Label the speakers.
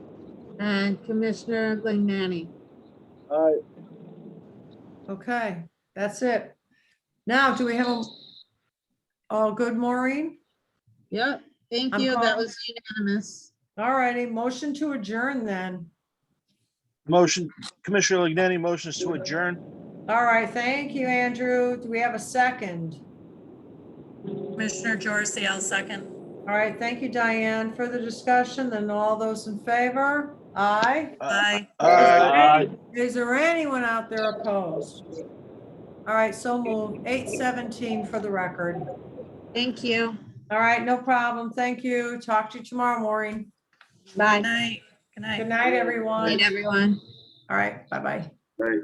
Speaker 1: and Commissioner Glinani.
Speaker 2: Aye.
Speaker 3: Okay, that's it. Now, do we have a, all good, Maureen?
Speaker 1: Yep, thank
Speaker 3: I'm
Speaker 1: you. That
Speaker 3: calling-
Speaker 1: was unanimous.
Speaker 3: All righty, motion to adjourn then.
Speaker 2: Motion, Commissioner Lignani motions to adjourn.
Speaker 3: All right, thank you, Andrew. Do we have a second?
Speaker 4: Commissioner Jorsy, I'll second.
Speaker 3: All right, thank you, Diane. Further discussion, then all those in favor? Aye.
Speaker 2: Uh,
Speaker 4: Bye.
Speaker 2: Aye.
Speaker 3: Is there anyone out there opposed? All right, so moved. Eight seventeen for the record.
Speaker 1: Thank you.
Speaker 3: All right, no problem. Thank you. Talk to you tomorrow, Maureen.
Speaker 4: Good
Speaker 1: Bye.
Speaker 4: night. Good night.
Speaker 3: Good night,
Speaker 1: Good
Speaker 3: everyone.
Speaker 1: night, everyone.
Speaker 3: All right, bye-bye.